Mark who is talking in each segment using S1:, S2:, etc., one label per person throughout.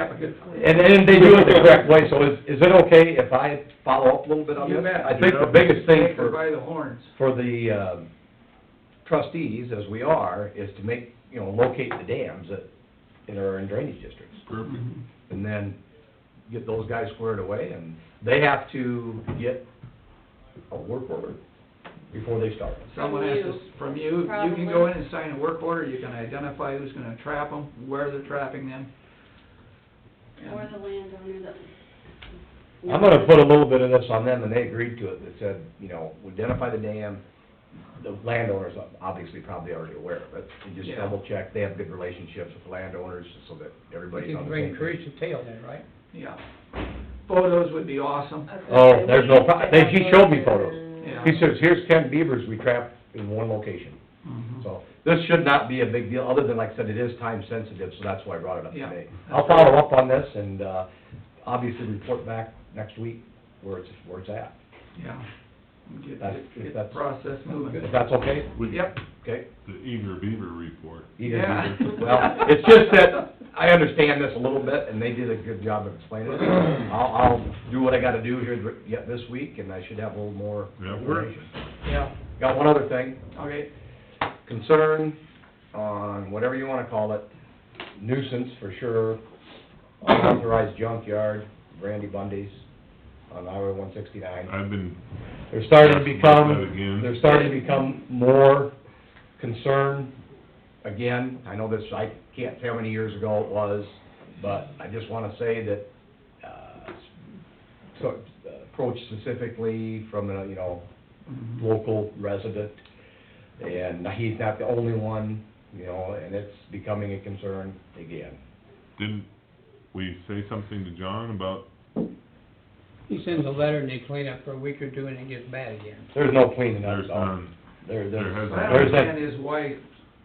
S1: applicant.
S2: And then they do it the correct way, so is, is it okay if I follow up a little bit on
S1: You
S2: this?
S1: bet.
S2: I think the biggest thing
S1: Take her
S2: for,
S1: by the horns.
S2: for the um, trustees, as we are, is to make, you know, locate the dams that, that are in drainage districts. And then get those guys squared away, and they have to get a work order before they start.
S1: Someone
S3: From
S1: has
S3: you,
S1: to, from you, you can go in and sign a work order, you can identify who's gonna trap them, where they're trapping them.
S3: Or the landowner that.
S2: I'm gonna put a little bit of this on them, and they agreed to it, that said, you know, identify the dam, the landowner's obviously probably already aware of it, and just
S1: Yeah.
S2: double check, they have good relationships with landowners, so that everybody's
S4: You
S2: on
S4: can
S2: the same page.
S4: increase the tail then, right?
S1: Yeah. Photos would be awesome.
S2: Oh, there's no pro- they- she showed me photos.
S1: Yeah.
S2: He says, here's ten beavers we trapped in one location,
S1: Mhm.
S2: so, this should not be a big deal, other than, like I said, it is time sensitive, so that's why I brought it up
S1: Yeah.
S2: today. I'll follow up on this, and, uh, obviously report back next week where it's, where it's at,
S1: Yeah. Get,
S2: That's-
S1: get- get the
S2: that's-
S1: process moving.
S2: if that's okay,
S5: Would-
S1: Yep,
S2: okay?
S5: The Eager Beaver report.
S2: Either
S1: Yeah.
S2: either. Well, it's just that I understand this a little bit, and they did a good job of explaining it. I'll, I'll do what I gotta do here th- yet this week, and I should have a little more
S5: That works.
S2: information.
S1: yeah,
S2: Got one other thing,
S1: okay,
S2: concern on whatever you wanna call it, nuisance for sure, unauthorized junkyard, Randy Bundy's on Highway one sixty-nine.
S5: I've been,
S2: They're starting to
S5: Yes, about that
S2: become,
S5: again.
S2: they're starting to become more concerned again. I know this, I can't tell how many years ago it was, but I just wanna say that, uh, so, approached specifically from a, you know, local resident, and he's not the only one, you know, and it's becoming a concern again.
S5: didn't we say something to John about,
S4: He sends a letter and they clean up for a week or two and it gets bad again.
S2: There's no cleaning up,
S5: there's
S2: though.
S5: none,
S2: There,
S5: there
S2: there's,
S5: hasn't
S1: what I
S5: been.
S2: There's that-
S1: understand is why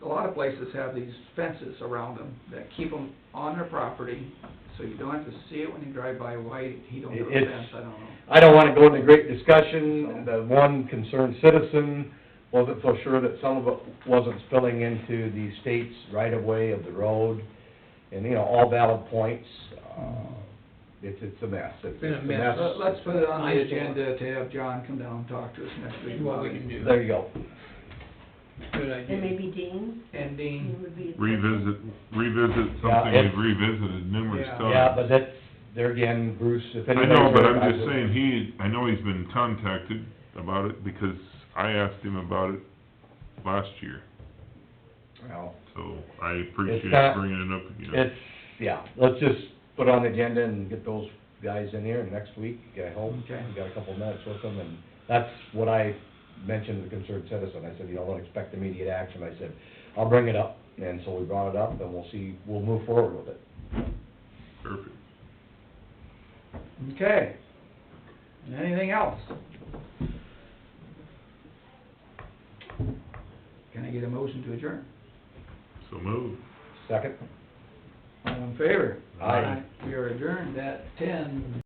S1: a lot of places have these fences around them that keep them on their property, so you don't have to see it when you drive by, why he don't have a
S2: It's-
S1: fence, I don't know.
S2: I don't wanna go into great discussion, the one concerned citizen wasn't so sure that some of it wasn't spilling into the state's right-of-way of the road, and, you know, all valid points, uh, it's, it's a mess, it's
S4: Been a
S2: it's a
S4: mess.
S2: mess.
S1: Let- Let's put it on the
S4: Nice.
S1: agenda to have John come down and talk to us next week.
S4: Is what we can do.
S2: There you go,
S4: Good
S3: And
S4: idea.
S3: maybe Dean,
S1: And
S3: he
S1: Dean,
S3: would be.
S5: revisit, revisit
S2: Yeah,
S5: something
S2: it's-
S5: we've revisited numerous
S1: Yeah.
S5: times.
S2: yeah, but that's, there again, Bruce, if
S5: Uh, I
S2: anybody...
S5: know, but I'm just saying, he, I know he's been contacted about it because I asked him about it last year,
S2: Well,
S5: so I appreciate
S2: It's not-
S5: bringing it up again.
S2: it's, yeah, let's just put on the agenda and get those guys in here next week, I hope.
S1: Okay.
S2: We got a couple minutes with them, and that's what I mentioned to the concerned citizen, I said, you know, don't expect immediate action, I said, I'll bring it up, and so we brought it up, and we'll see, we'll move forward with it.
S5: Perfect.
S1: okay. Anything else? Can I get a motion to adjourn?
S5: So move.
S2: Second?
S1: All in favor?
S2: Aye.
S1: We are adjourned at ten